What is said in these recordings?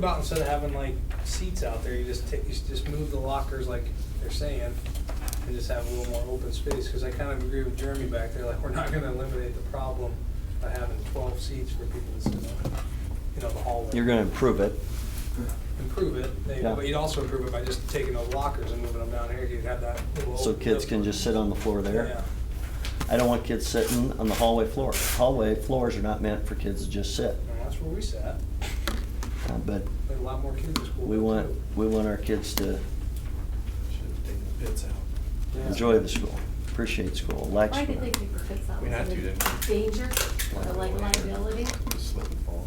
About instead of having like seats out there, you just take, you just move the lockers like they're saying, and just have a little more open space, because I kind of agree with Jeremy back there, like, we're not gonna eliminate the problem by having twelve seats for people to sit on, you know, the hallway. You're gonna improve it. Improve it, maybe, Yeah. but you'd also improve it by just taking those lockers and moving them down here, you'd have that little. So open kids can door. just sit on the floor there. Yeah. I don't want kids sitting on the hallway floor. Hallway floors are not meant for kids to just sit. And that's where we sat, Uh, But There were a lot more kids at school. we too. want, we want our kids to Should have taken the pits out. Yeah. enjoy the school, appreciate school, like Why school. did they pick the fits out? We had to, didn't we? Danger, or like liability? I Just Slip and fall.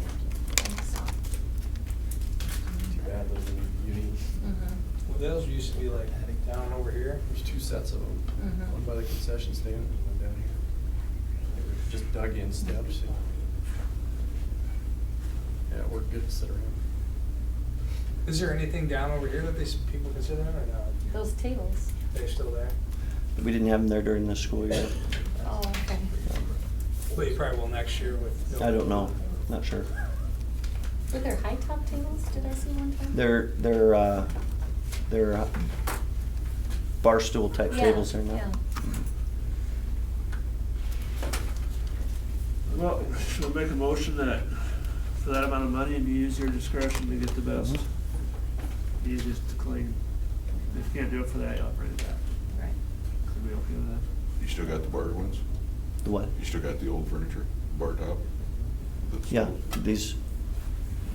think so. Too bad those are unique. Mm-hmm, Mhm. Well, Those used to be like down over here. There's two sets of them, Mhm. one by the concession stand and one down here. They were Just dug in steps. Yeah, we're good to sit around. Is there anything down over here that these people consider or not? Those tables. They're still there? We didn't have them there during the school year. Oh, okay. Well, you probably will next year with. I don't know, not sure. Were there high top tables? Did I see one time? They're, they're, uh, they're uh, bar stool type Yeah, tables there now. yeah. Well, we'll make a motion that for that amount of money and you use your discretion to get the best, Mhm. easiest to clean. If you can't do it for that, you operate it back. Right. Could we okay with that? You still got the bar ones? The what? You still got the old furniture, bar top? That's- Yeah, these,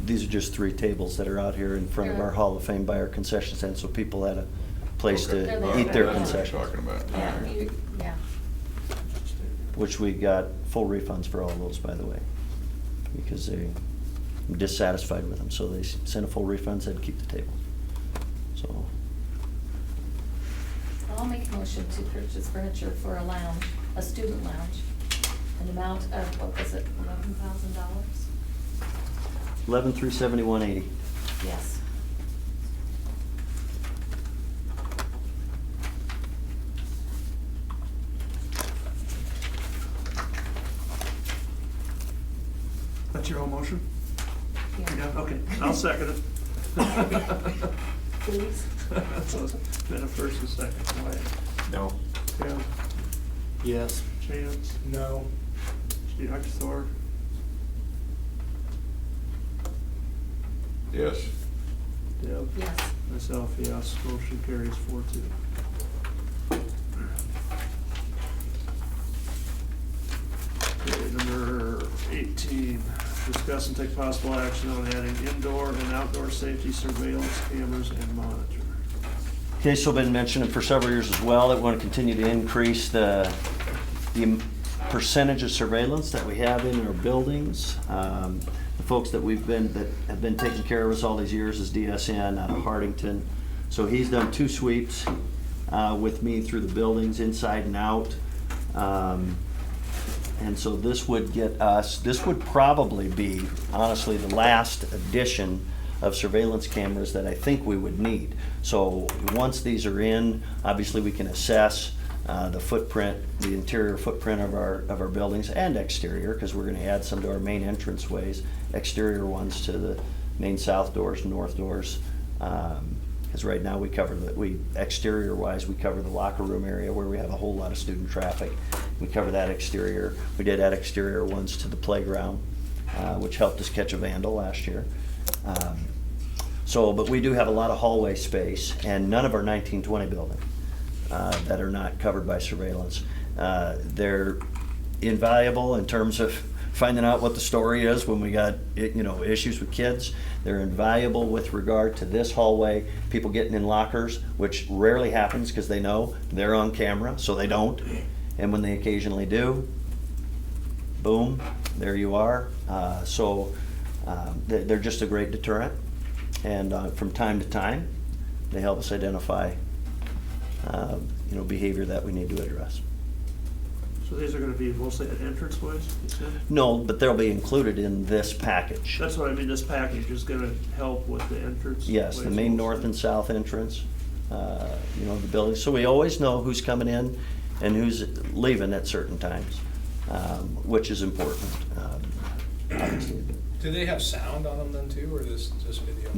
these are just three tables that are out here in front of our Yeah. Hall of Fame by our concession stand, so people had a place Okay. They're to there. eat their That's what you're concessions, talking about. Yeah, All right. you- yeah. which we got full refunds for all those, by the way, because they were dissatisfied with them, so they s- sent a full refund, said keep the table. So, I'll make a motion to purchase furniture for a lounge, a student lounge, an amount of, what was it, eleven thousand dollars? eleven through seventy-one eighty. Yes. That's your whole motion? Yeah, okay, I'll second it. Please. So it's Been a first and second, Wyatt. No. Tim, Yes. Chance, No. Steve Huxtor, Yes, Deb. Yes. Myself, yes, motion carries four two. Okay, number eighteen, discuss and take possible action on adding indoor and outdoor safety surveillance cameras and monitor. Okay, so been mentioning for several years as well, that we want to continue to increase the, the percentage of surveillance that we have in our buildings. Um, The folks that we've been, that have been taking care of us all these years is DSN out of Hardington. So he's done two sweeps uh, with me through the buildings, inside and out. Um, and so this would get us, this would probably be, honestly, the last edition of surveillance cameras that I think we would need. So, once these are in, obviously, we can assess uh, the footprint, the interior footprint of our, of our buildings and exterior, because we're gonna add some to our main entrance ways, exterior ones to the main south doors, north doors. Because right now, we cover the, we, exterior-wise, we cover the locker room area where we have a whole lot of student traffic. We cover that exterior. We did add exterior ones to the playground, uh, which helped us catch a vandal last year. Um, So, but we do have a lot of hallway space, and none of our 1920 building uh, that are not covered by surveillance. Uh, They're invaluable in terms of finding out what the story is when we got, i- you know, issues with kids. They're invaluable with regard to this hallway, people getting in lockers, which rarely happens because they know they're on camera, so they don't. And when they occasionally do, boom, there you are. Uh, So um, they- they're just a great deterrent. And uh, from time to time, they help us identify um, you know, behavior that we need to address. So these are gonna be mostly at entrance ways, you said? No, but they'll be included in this package. That's what I mean, this package is gonna help with the entrance. Yes, the ways main also. north and south entrance, uh, you know, of the building. So we always know who's coming in and who's leaving at certain times, um, which is important, um, obviously. Do they have sound on them then too, or just, just video?